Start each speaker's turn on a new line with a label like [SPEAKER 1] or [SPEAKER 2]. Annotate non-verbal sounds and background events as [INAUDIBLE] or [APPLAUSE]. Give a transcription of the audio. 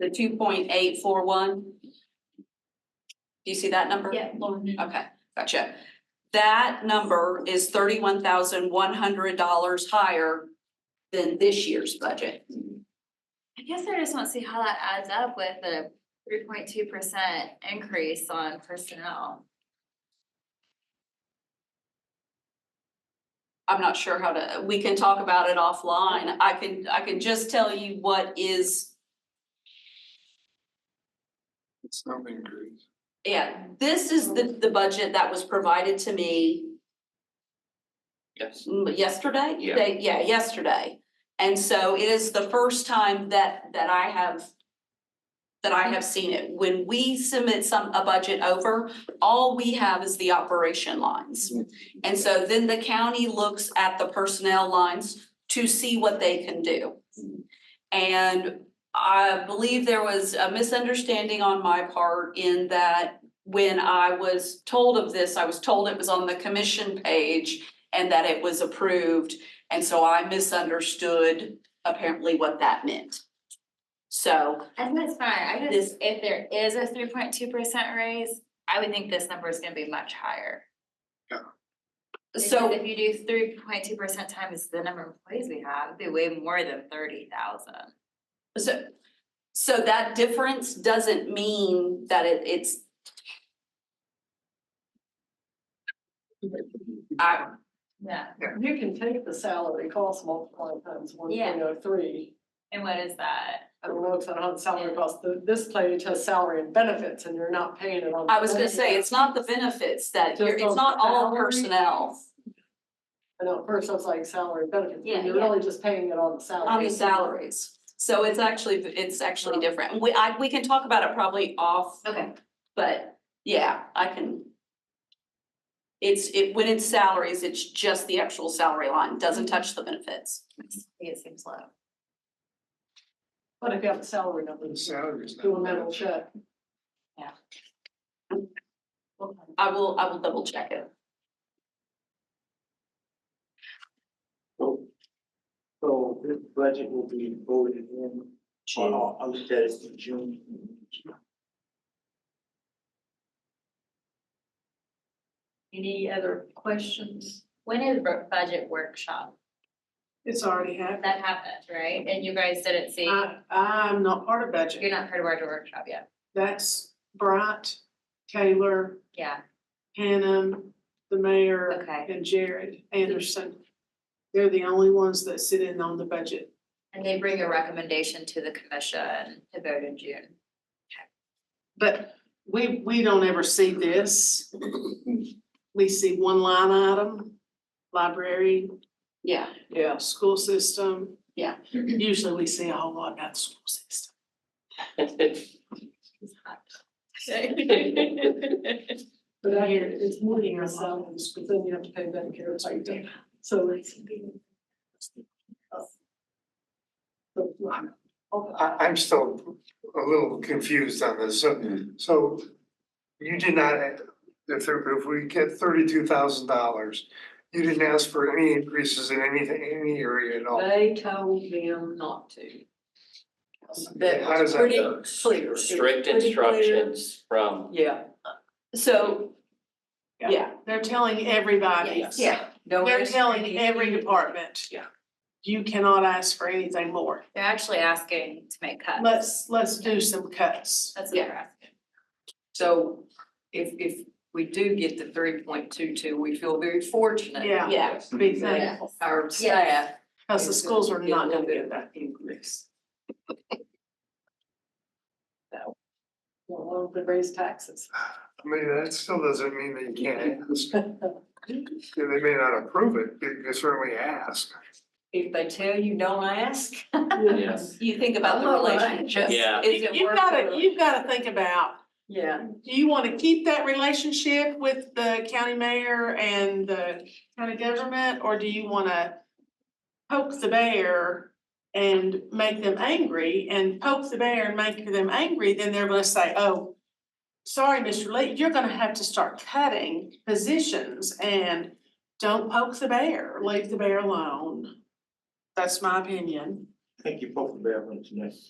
[SPEAKER 1] The two point eight four one? Do you see that number?
[SPEAKER 2] Yeah, Lauren.
[SPEAKER 1] Okay, gotcha. That number is thirty-one thousand one hundred dollars higher than this year's budget.
[SPEAKER 2] I guess I just want to see how that adds up with a three point two percent increase on personnel.
[SPEAKER 1] I'm not sure how to, we can talk about it offline. I can, I can just tell you what is,
[SPEAKER 3] It's not increased.
[SPEAKER 1] yeah, this is the, the budget that was provided to me
[SPEAKER 4] Yes.
[SPEAKER 1] mm, yesterday?
[SPEAKER 4] Yeah.
[SPEAKER 1] Day- Yeah, yesterday. And so it is the first time that, that I have, that I have seen it. When we submit some, a budget over, all we have is the operation lines. And so then the county looks at the personnel lines to see what they can do. And I believe there was a misunderstanding on my part in that when I was told of this, I was told it was on the commission page and that it was approved. And so I misunderstood apparently what that meant. So,
[SPEAKER 2] And that's fine, I
[SPEAKER 1] This-
[SPEAKER 2] just, if there is a three point two percent raise, I would think this number is gonna be much higher. Because
[SPEAKER 1] so,
[SPEAKER 2] If you do three point two percent times the number of employees we have, it'd be way more than thirty thousand.
[SPEAKER 1] so, so that difference doesn't mean that it, it's. I,
[SPEAKER 2] Yeah.
[SPEAKER 5] You can take the salary cost multiplied times one
[SPEAKER 2] Yeah.
[SPEAKER 5] point oh three.
[SPEAKER 2] And what is that?
[SPEAKER 5] I don't know if that on salary cost, The- this page has salary and benefits and you're not paying it on.
[SPEAKER 1] I was gonna say, it's not the benefits that, you're- it's not all personnel
[SPEAKER 5] I know, at first I was like salary and benefits,
[SPEAKER 1] Yeah,
[SPEAKER 5] but you're
[SPEAKER 1] yeah.
[SPEAKER 5] really just paying it on the salary.
[SPEAKER 1] on the salaries. So it's actually, it's actually different. And We, I, we can talk about it probably off
[SPEAKER 2] Okay.
[SPEAKER 1] But yeah, I can. It's it, when it's salaries, it's just the actual salary line, doesn't touch the benefits.
[SPEAKER 2] It seems low.
[SPEAKER 5] But if you have a salary number,
[SPEAKER 3] The
[SPEAKER 5] just
[SPEAKER 3] salary is not.
[SPEAKER 5] do a mental check.
[SPEAKER 1] I will, I will double check it.
[SPEAKER 6] Oh, So this budget will be voted in on, on the status of June.
[SPEAKER 5] Any other questions?
[SPEAKER 2] When is bu- budget workshop?
[SPEAKER 7] It's already Uh, happened.
[SPEAKER 2] That happened, right? And you guys didn't see,
[SPEAKER 7] I, I'm not part of
[SPEAKER 2] you're
[SPEAKER 7] budget.
[SPEAKER 2] not part of our workshop yet.
[SPEAKER 7] That's Bright, Taylor,
[SPEAKER 2] Yeah,
[SPEAKER 7] Hannum, the mayor,
[SPEAKER 2] okay.
[SPEAKER 7] and Jared Anderson. They're the only ones that sit in on the budget.
[SPEAKER 2] And they bring a recommendation to the commission to vote in June.
[SPEAKER 7] But we, we don't ever see this. We see one line item, library,
[SPEAKER 1] Yeah,
[SPEAKER 5] Yeah.
[SPEAKER 7] school system.
[SPEAKER 1] Yeah.
[SPEAKER 7] Usually we see a whole lot about the school system.
[SPEAKER 5] But I hear it's more than your salaries, but then you have to pay Medicare, it's like, so it's. So,
[SPEAKER 3] I, I'm still a little confused on this, so, so you did not, if, there- if we get thirty-two thousand dollars, you didn't ask for any increases in anything, any area at all.
[SPEAKER 5] They told them not to.
[SPEAKER 3] How does that work?
[SPEAKER 1] clear.
[SPEAKER 4] Strict
[SPEAKER 5] pretty clear.
[SPEAKER 4] instructions from,
[SPEAKER 5] Yeah.
[SPEAKER 1] So,
[SPEAKER 7] Yeah.
[SPEAKER 1] yeah,
[SPEAKER 7] They're telling everybody.
[SPEAKER 1] [LAUGHS] yeah, no
[SPEAKER 7] They're
[SPEAKER 1] worries.
[SPEAKER 7] telling every department.
[SPEAKER 4] Yeah.
[SPEAKER 7] You cannot ask for anything more.
[SPEAKER 2] They're actually asking to make cuts.
[SPEAKER 7] Let's, let's do some cuts.
[SPEAKER 2] That's what they're asking.
[SPEAKER 8] So if, if we do get the three point two two, we feel very fortunate.
[SPEAKER 7] Yeah,
[SPEAKER 1] yeah,
[SPEAKER 7] big thing,
[SPEAKER 8] That our staff.
[SPEAKER 7] because the
[SPEAKER 8] is
[SPEAKER 7] schools are
[SPEAKER 8] gonna get a
[SPEAKER 7] not
[SPEAKER 8] little
[SPEAKER 7] gonna
[SPEAKER 8] bit
[SPEAKER 7] get
[SPEAKER 8] of
[SPEAKER 7] that.
[SPEAKER 8] that increase.
[SPEAKER 5] Well, they raise taxes.
[SPEAKER 3] I mean, that still doesn't mean that you can't ask. They may not approve it, but you can certainly ask.
[SPEAKER 8] If they tell you don't ask, [LAUGHS]
[SPEAKER 4] yes,
[SPEAKER 1] you think about the
[SPEAKER 8] Oh, right.
[SPEAKER 1] relationship.
[SPEAKER 4] Yeah.
[SPEAKER 1] Is it
[SPEAKER 7] You've
[SPEAKER 1] worth
[SPEAKER 7] gotta,
[SPEAKER 1] it?
[SPEAKER 7] you've gotta think about,
[SPEAKER 8] yeah,
[SPEAKER 7] do you wanna keep that relationship with the county mayor and the county government? Or do you wanna poke the bear and make them angry and poke the bear and make them angry? Then they're gonna say, oh, sorry, Mr. Lee, you're gonna have to start cutting positions and don't poke the bear, leave the bear alone. That's my opinion.
[SPEAKER 6] I think you both have been on tonight.